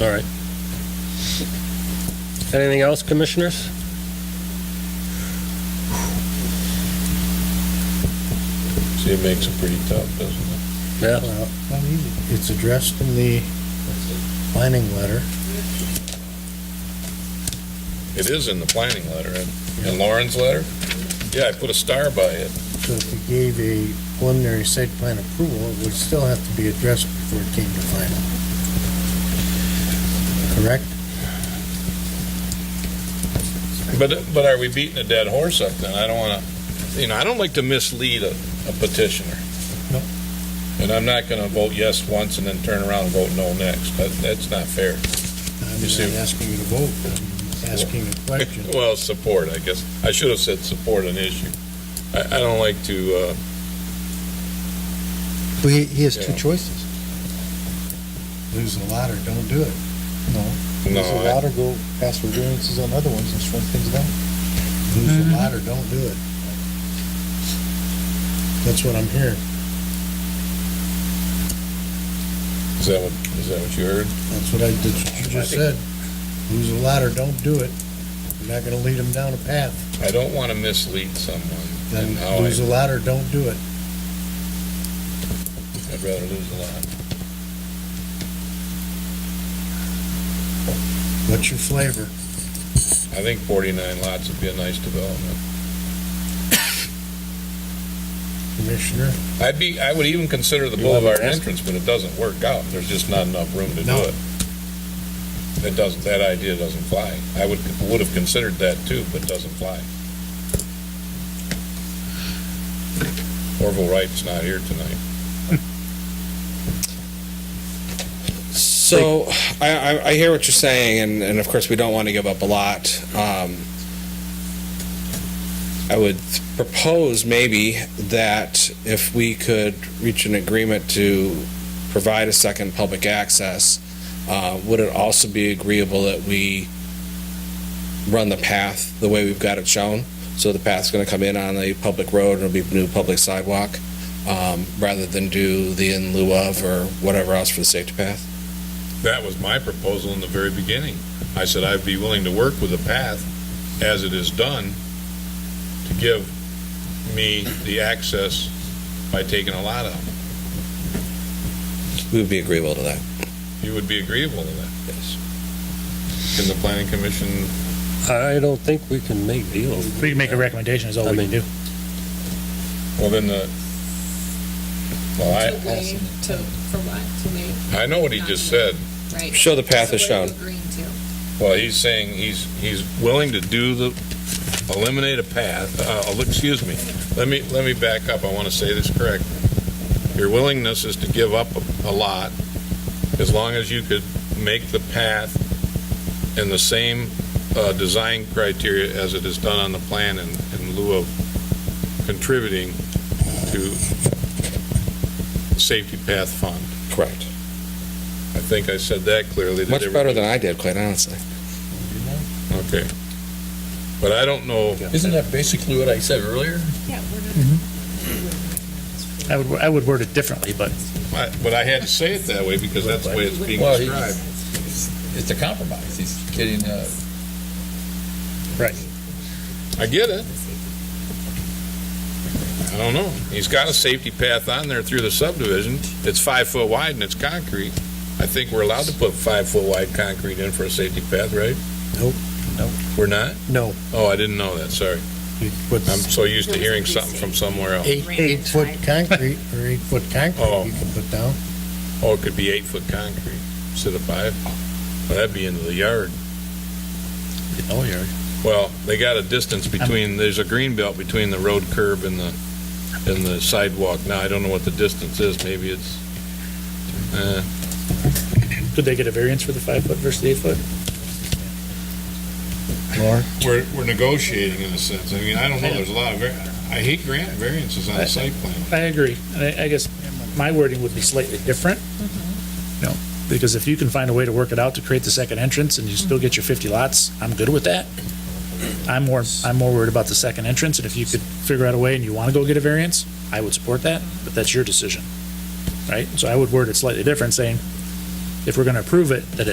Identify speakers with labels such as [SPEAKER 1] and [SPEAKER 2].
[SPEAKER 1] All right. Anything else, commissioners?
[SPEAKER 2] See, it makes it pretty tough, doesn't it?
[SPEAKER 1] Yeah,
[SPEAKER 3] Well, not easy. It's addressed in the planning letter.
[SPEAKER 2] It is in the planning letter and, and Lauren's letter. Yeah, I put a star by it.
[SPEAKER 3] So if you gave a preliminary site plan approval, it would still have to be addressed before it came to final. Correct?
[SPEAKER 2] But, but are we beating a dead horse up then? I don't wanna, you know, I don't like to mislead a, a petitioner.
[SPEAKER 3] No.
[SPEAKER 2] And I'm not gonna vote yes once and then turn around and vote no next. That, that's not fair.
[SPEAKER 3] I'm
[SPEAKER 2] You see-
[SPEAKER 3] not asking you to vote, I'm asking a question.
[SPEAKER 2] Well, support, I guess. I should have said support an issue. I, I don't like to, uh,
[SPEAKER 3] Well, He, he has two
[SPEAKER 2] Yeah.
[SPEAKER 3] choices. Lose the lot or don't do it. No.
[SPEAKER 2] no,
[SPEAKER 3] Lose the
[SPEAKER 2] I-
[SPEAKER 3] lot or go ask for variances on other ones and shrink things down. Lose the lot or don't do it. That's what I'm hearing.
[SPEAKER 2] is that what, is that what you heard?
[SPEAKER 3] That's what I, that's what you just said. Lose the lot or don't do it. You're not gonna lead them down a path.
[SPEAKER 2] I don't wanna mislead someone.
[SPEAKER 3] Then
[SPEAKER 2] and how I-
[SPEAKER 3] lose the lot or don't do it.
[SPEAKER 2] I'd rather lose a lot.
[SPEAKER 3] What's your flavor?
[SPEAKER 2] I think forty-nine lots would be a nice development.
[SPEAKER 3] Commissioner,
[SPEAKER 2] I'd be, I would even consider the
[SPEAKER 1] You want me
[SPEAKER 2] boulevard
[SPEAKER 1] to ask?
[SPEAKER 2] entrance, but it doesn't work out. There's just not enough room to do
[SPEAKER 3] No.
[SPEAKER 2] it. It doesn't, that idea doesn't fly. I would, would have considered that too, but it doesn't fly. Orville Wright's not here tonight.
[SPEAKER 4] So I, I, I hear what you're saying, and, and of course we don't want to give up a lot. Um, I would propose maybe that if we could reach an agreement to provide a second public access, uh, would it also be agreeable that we run the path the way we've got it shown? So the path's going to come in on the public road and it'll be new public sidewalk, um, rather than do the in lieu of or whatever else for the safety path?
[SPEAKER 2] That was my proposal in the very beginning. I said I'd be willing to work with the path as it is done to give me the access by taking a lot out.
[SPEAKER 4] We would be agreeable to that.
[SPEAKER 2] You would be agreeable to that? Yes. Can the planning commission,
[SPEAKER 1] I don't think we can make deals.
[SPEAKER 5] We can make a recommendation, is all
[SPEAKER 1] I
[SPEAKER 5] we
[SPEAKER 1] mean-
[SPEAKER 5] can do.
[SPEAKER 2] well, then the,
[SPEAKER 6] To
[SPEAKER 2] well,
[SPEAKER 6] waive, to, for what, to waive,
[SPEAKER 2] I, I know what he just said.
[SPEAKER 6] right?
[SPEAKER 4] Show the path is
[SPEAKER 6] So what are
[SPEAKER 4] shown.
[SPEAKER 6] you Agreeing to,
[SPEAKER 2] Well, he's saying he's, he's willing to do the, eliminate a path, uh, uh, excuse me. Let me, let me back up. I want to say this correct. Your willingness is to give up a- a lot as long as you could make the path in the same, uh, design criteria as it is done on the plan in, in lieu of contributing to safety path fund.
[SPEAKER 4] Correct.
[SPEAKER 2] I think I said that clearly. Did
[SPEAKER 4] Much
[SPEAKER 2] everybody-
[SPEAKER 4] better than I did, quite honestly.
[SPEAKER 2] Okay. But I don't know.
[SPEAKER 7] Isn't that basically what I said earlier?
[SPEAKER 6] yeah, we're not.
[SPEAKER 5] I would, I would word it differently, but
[SPEAKER 2] I- But I had to say it that way because that's the way it's being
[SPEAKER 7] Well, he-
[SPEAKER 2] described.
[SPEAKER 7] It's a compromise. He's getting, uh,
[SPEAKER 2] I get it. I don't know. He's got a safety path on there through the subdivision. It's five foot wide and it's concrete. I think we're allowed to put five foot wide concrete in for a safety path, right?
[SPEAKER 3] Nope.
[SPEAKER 5] Nope.
[SPEAKER 2] We're not?
[SPEAKER 3] no.
[SPEAKER 2] Oh, I didn't know that. Sorry.
[SPEAKER 3] You put
[SPEAKER 2] I'm so used to hearing something from somewhere else.
[SPEAKER 3] eight, eight foot concrete or eight foot
[SPEAKER 2] Oh.
[SPEAKER 3] concrete you can put down.
[SPEAKER 2] Oh, it could be eight foot concrete instead of five. Well, that'd be into the yard.
[SPEAKER 3] Oh, yeah.
[SPEAKER 2] Well, they got a distance between, there's a green belt between the road curb and the, and the sidewalk. Now, I don't know what the distance is, maybe it's, uh,
[SPEAKER 5] could they get a variance for the five foot versus the eight foot?
[SPEAKER 3] Lauren,
[SPEAKER 2] we're, we're negotiating in a sense. I mean, I don't know, there's a lot of, var- I hate grant variances on a site plan.
[SPEAKER 5] I agree. And I, I guess my wording would be slightly different. No, because if you can find a way to work it out to create the second entrance and you still get your fifty lots, I'm good with that. I'm more, I'm more worried about the second entrance, and if you could figure out a way and you want to go get a variance, I would support that, but that's your decision. Right? So I would word it slightly different, saying, if we're going to approve it, that it